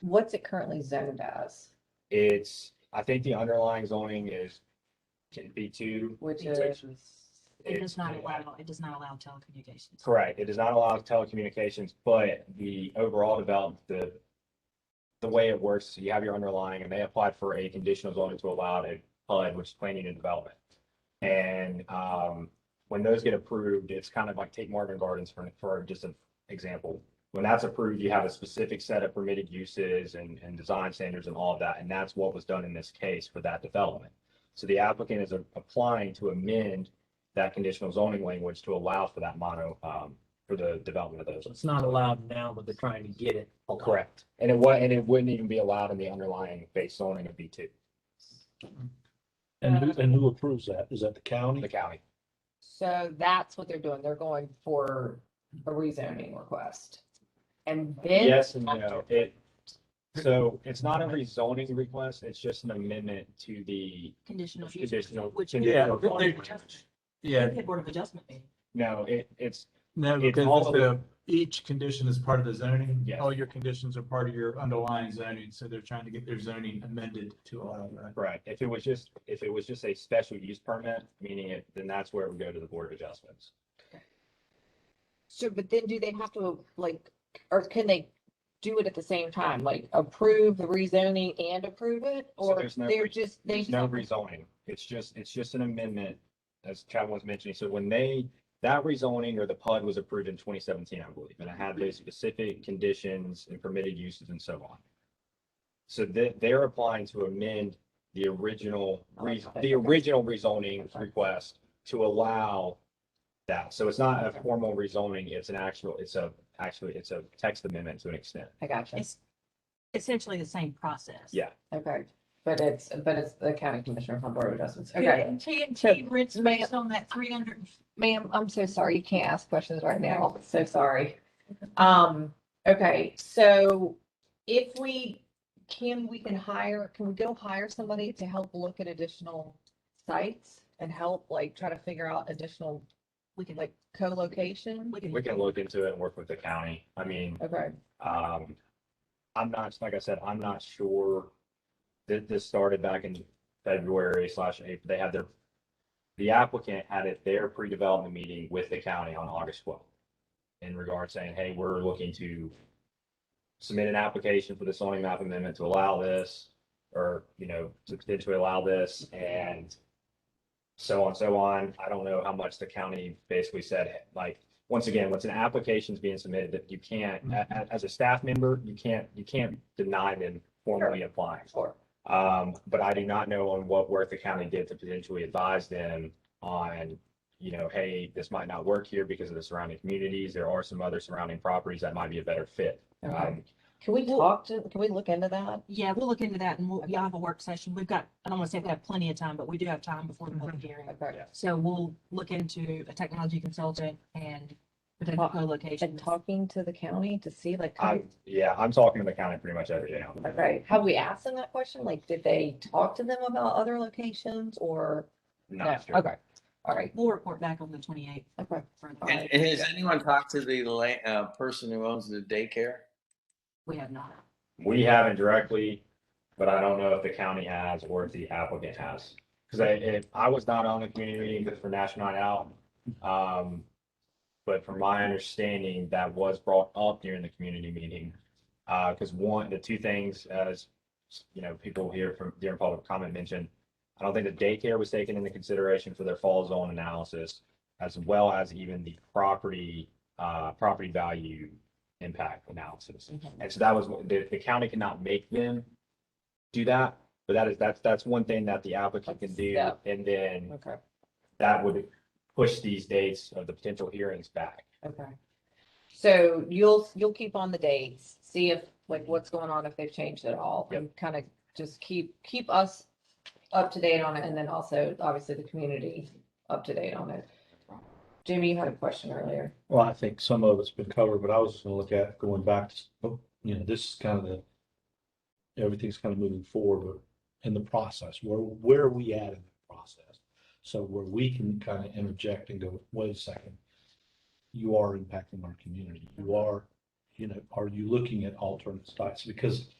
what's it currently zoned as, It's, I think the underlying zoning is in B two. which is, It does not allow, it does not allow telecommunications. Correct. It does not allow telecommunications, but the overall development, the the way it works, so you have your underlying and they applied for a conditional zoning to allow it, PUD, which is planning and development. And um, when those get approved, it's kind of like take Marvin Gardens for, for just an example. When that's approved, you have a specific set of permitted uses and, and design standards and all of that. And that's what was done in this case for that development. So the applicant is applying to amend that conditional zoning language to allow for that mono, um, for the development of those. So it's not allowed now, but they're trying to get it. allowed. Correct. And it wa, and it wouldn't even be allowed in the underlying base zoning of B two, And who, and who approves that? Is that the county? the county. so that's what they're doing, they're going for a rezoning request. And then. Yes and no. It, so it's not a rezoning request, it's just an amendment to the Conditional use. conditional. Which- conditional Yeah, zoning they- language. Yeah, Yeah, Board of Adjustment meeting. No, it, it's, no, It's because all it's a- each condition is part of the zoning. Yes. All your conditions are part of your underlying zoning, so they're trying to get their zoning amended to allow that. right, if it was just, if it was just a special use permit, meaning it, then that's where it would go to the Board of Adjustments. So, but then do they have to like, or can they do it at the same time, like approve the rezoning and approve it? So Or there's no they're re- just, they There's just. no have to- rezoning. It's just, it's just an amendment, as Chad was mentioning. So when they, that rezoning or the PUD was approved in twenty seventeen, I believe, and it had those specific conditions and permitted uses and so on. So they, they're applying to amend the original, re- the original rezoning request to allow that. So it's not a formal rezoning, it's an actual, it's a, actually, it's a text amendment to an extent. I gotcha. It's essentially the same process. Yeah. Okay. But it's, but it's the county commissioner from Board of Adjustments. Okay. Yeah, TNT rents based on that three hundred Ma'am, I'm so sorry. You can't ask questions right now. So sorry. Um, okay, so if we, can, we can hire, can we go hire somebody to help look at additional sites and help like try to figure out additional we can, like co-location? we can. We can look into it and work with the county. I mean, Okay, Um, I'm not, like I said, I'm not sure that this started back in February slash April. They had their, the applicant had at their pre-development meeting with the county on August twelfth in regard saying, hey, we're looking to submit an application for the zoning map amendment to allow this or, you know, to potentially allow this and so on, so on. I don't know how much the county basically said, like, once again, once an application's being submitted, that you can't, a- a- as a staff member, you can't, you can't deny them formally applying. sure. Um, but I do not know on what work the county did to potentially advise them on, you know, hey, this might not work here because of the surrounding communities. There are some other surrounding properties that might be a better fit. Okay. Um, Can we talk to, can we look into that? Yeah, we'll look into that and we'll, y'all have a work session. We've got, I don't want to say we have plenty of time, but we do have time before the public hearing. Okay, Yeah. So we'll look into a technology consultant and potential Talk- co-location. and talking to the county to see like, I, yeah, I'm talking to the county pretty much every day. now. okay, have we asked them that question? Like, did they talk to them about other locations or? Not No, sure. Okay, all right, We'll report back on the twenty-eighth. okay. And and has anyone talked to the la- uh, person who owns the daycare? We have not. We haven't directly, but I don't know if the county has or if the applicant has. Because I, if- I was not on the community meeting but for National Night Out. Um, but from my understanding, that was brought up during the community meeting. Uh, because one, the two things, as, you know, people here from, during public comment mentioned, I don't think the daycare was taken into consideration for their fall zone analysis, as well as even the property, uh, property value impact analysis. Mm-hmm. And so that was, what- the, the county cannot make them do that, but that is, that's, that's one thing that the applicant can do. Yeah. And then Okay, that would push these dates of the potential hearings back. okay. So you'll, you'll keep on the dates, see if, like, what's going on, if they've changed at all, and kind of just keep, keep us up to date on it, and then also, obviously, the community up to date on it. Jimmy, you had a question earlier. Well, I think some of it's been covered, but I was just gonna look at going back to, oh, you know, this is kind of the. Everything's kind of moving forward but in the process, where, where are we at in the process? So where we can kind of interject and go, wait a second. You are impacting our community. You are, you know, are you looking at alternate sites? Because